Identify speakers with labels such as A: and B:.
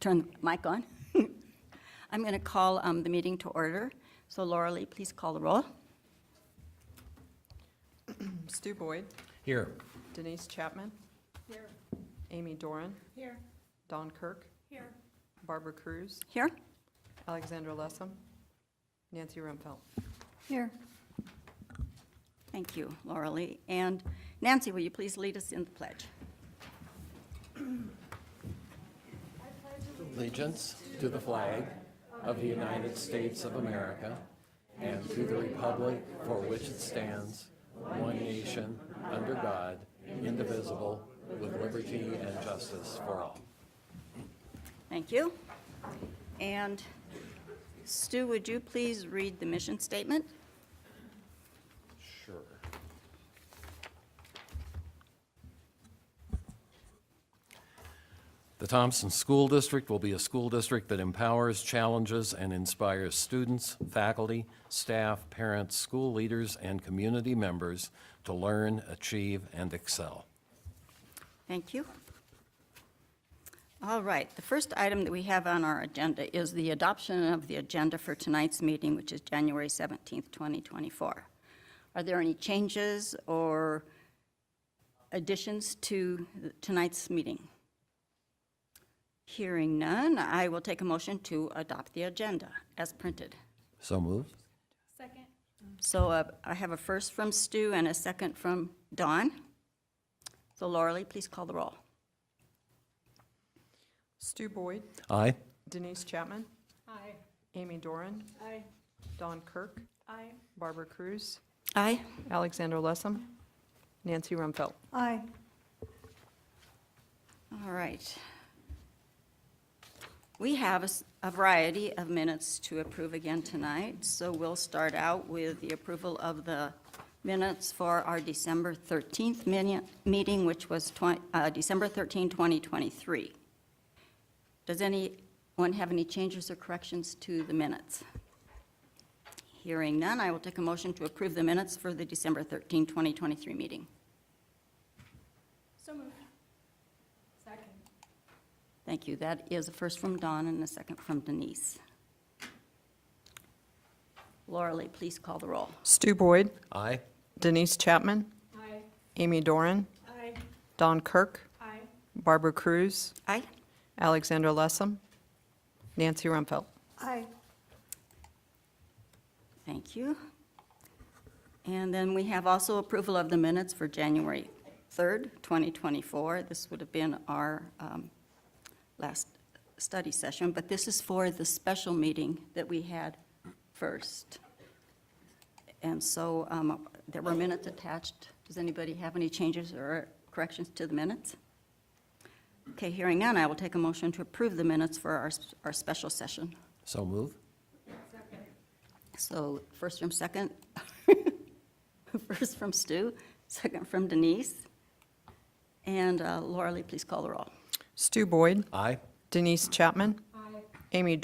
A: turn the mic on. I'm going to call um, the meeting to order. So Laura Lee, please call the roll.
B: Stu Boyd,
C: Here.
B: Denise Chapman. Here. Amy Doran. Here. Don Kirk. Here. Barbara Cruz,
A: Here?
B: Alexandra Lessem, Nancy Rumpfelt.
A: Here. Thank you, Laura Lee. And Nancy, will you please lead us in the pledge?
C: Allegiance to the flag of the United States of America and to the republic for which it stands, one nation, under God, indivisible, with liberty and justice for all.
A: Thank you. And Stu, would you please read the mission statement?
C: Sure. The Thompson School District will be a school district that empowers, challenges, and inspires students, faculty, staff, parents, school leaders, and community members to learn, achieve, and excel.
A: Thank you. All right, the first item that we have on our agenda is the adoption of the agenda for tonight's meeting, which is January 17th, 2024. Are there any changes or additions to tonight's meeting? Hearing none, I will take a motion to adopt the agenda as printed.
C: So moved.
D: Second.
A: So uh, I have a first from Stu and a second from Dawn. So Laura Lee, please call the roll.
B: Stu Boyd,
C: Aye.
B: Denise Chapman,
D: Aye.
B: Amy Doran,
D: Aye.
B: Don Kirk,
D: Aye.
B: Barbara Cruz,
A: Aye.
B: Alexandra Lessem, Nancy Rumpfelt.
D: Aye.
A: All right. We have a s- a variety of minutes to approve again tonight, so we'll start out with the approval of the minutes for our December 13th mini- meeting, which was twen- uh, December 13, 2023. Does anyone have any changes or corrections to the minutes? Hearing none, I will take a motion to approve the minutes for the December 13, 2023 meeting.
D: So moved. Second.
A: Thank you. That is a first from Don and a second from Denise. Laura Lee, please call the roll.
B: Stu Boyd,
C: Aye.
B: Denise Chapman,
D: Aye.
B: Amy Doran,
D: Aye.
B: Don Kirk,
D: Aye.
B: Barbara Cruz,
A: Aye.
B: Alexandra Lessem, Nancy Rumpfelt.
D: Aye.
A: Thank you. And then we have also approval of the minutes for January 3rd, 2024. This would have been our um, last study session, but this is for the special meeting that we had first. And so um, there were minutes attached. Does anybody have any changes or corrections to the minutes? Okay, hearing none, I will take a motion to approve the minutes for our, our special session.
C: So moved.
A: So first from second, first from Stu, second from Denise. And uh, Laura Lee, please call the roll.
B: Stu Boyd,
C: Aye.
B: Denise Chapman. Amy